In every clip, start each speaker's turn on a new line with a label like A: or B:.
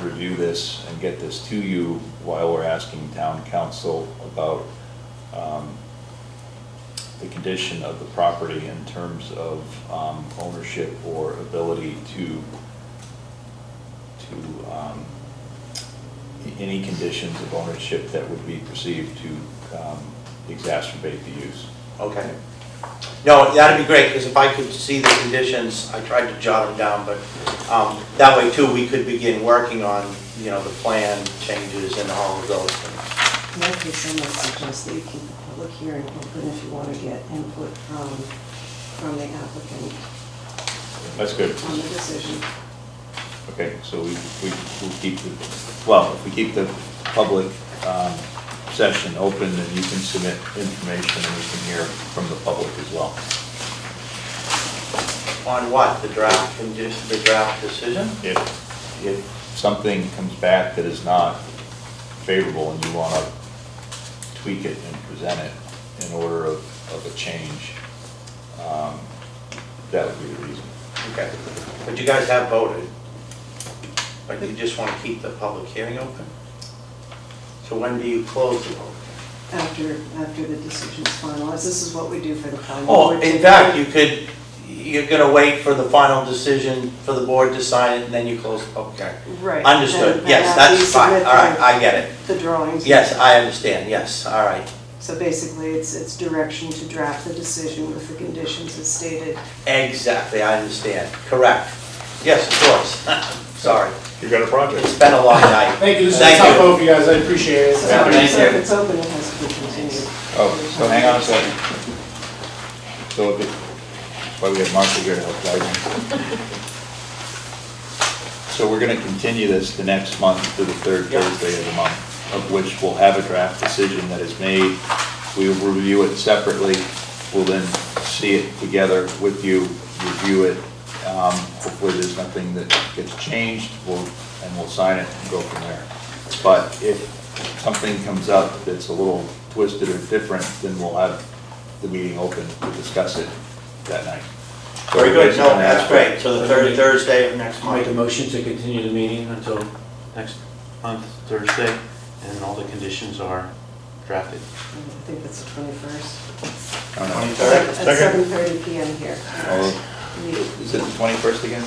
A: review this and get this to you while we're asking town council about um, the condition of the property in terms of um, ownership or ability to, to, um, any conditions of ownership that would be perceived to um, exacerbate the use.
B: Okay. No, that'd be great, because if I could see the conditions, I tried to jot them down, but um, that way too, we could begin working on, you know, the plan changes and all of those things.
C: My case, I might suggest that you keep the public hearing open if you want to get input from, from the applicant
A: That's good.
C: on the decision.
A: Okay, so we, we, we'll keep the, well, if we keep the public, um, session open, then you can submit information and we can hear from the public as well.
B: On what, the draft condition, the draft decision?
A: If, if something comes back that is not favorable and you wanna tweak it and present it in order of, of a change, um, that would be the reason.
B: Okay, but you guys have voted, but you just want to keep the public hearing open? So when do you close the vote?
C: After, after the decision is finalized, this is what we do for the planning board.
B: Oh, in fact, you could, you're gonna wait for the final decision for the board to sign it, and then you close the public hearing.
C: Right.
B: Understood,
C: and-
B: yes,
C: and after you
B: that's fine,
C: submit
B: all right,
C: the-
B: I get it.
C: The drawings.
B: Yes, I understand, yes, all right.
C: So basically, it's, it's direction to draft the decision with the conditions as stated.
B: Exactly, I understand, correct. Yes, of course, sorry,
D: You got a
B: it's
D: project.
B: been a long night.
E: Thank you, this is
B: Thank
E: tough
B: you.
E: vote for you guys, I appreciate it.
C: So
B: Yeah,
C: if
B: thank
C: it's- if
B: you.
C: it's open, it has to be continued.
A: Oh, so hang on a second. So, if it- why we have Martha here to help guide me. So we're gonna continue this the next month to the third
B: Yeah.
A: Thursday of the month, of which we'll have a draft decision that is made. We will review it separately, we'll then see it together with you, review it. Um, Hopefully, there's nothing that gets changed, we'll, and we'll sign it and go from there. But if something comes up that's a little twisted or different, then we'll have the meeting open to discuss it that night. So
B: Very good,
A: everybody's
B: no,
A: gonna
B: that's
A: have-
B: great, so the third Thursday of next
F: I'll make a
B: month.
F: motion to continue the meeting until next month, Thursday, and all the conditions are
C: I
F: drafted.
C: think that's the 21st.
A: I don't know.
B: Second.
C: At 7:30 PM here.
A: Oh,
C: We-
A: Is it the 21st again?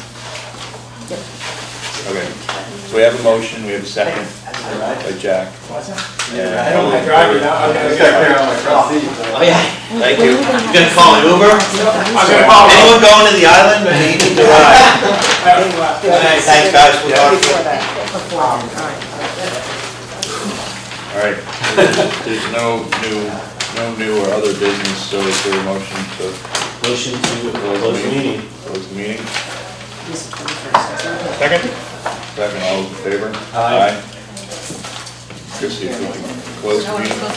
A: Okay, so we have a motion, we have a second by Jack.
E: I don't like driving, I I gotta figure out my trustee. but-
B: Oh, yeah,
A: Thank you.
B: you gonna call an Uber?
E: I'm gonna call him.
B: Anyone going to the island, or need to ride? Thanks, guys, we'll talk.
C: Before that, before, all right.
A: All right, there's no new, no new or other business, so is there a motion to
F: Motion to close the meeting.
A: close the meeting?
C: This is 21st, isn't it?
D: Second?
A: Second, all those in favor?
F: Aye.
A: Chrissy, if you can close the meeting.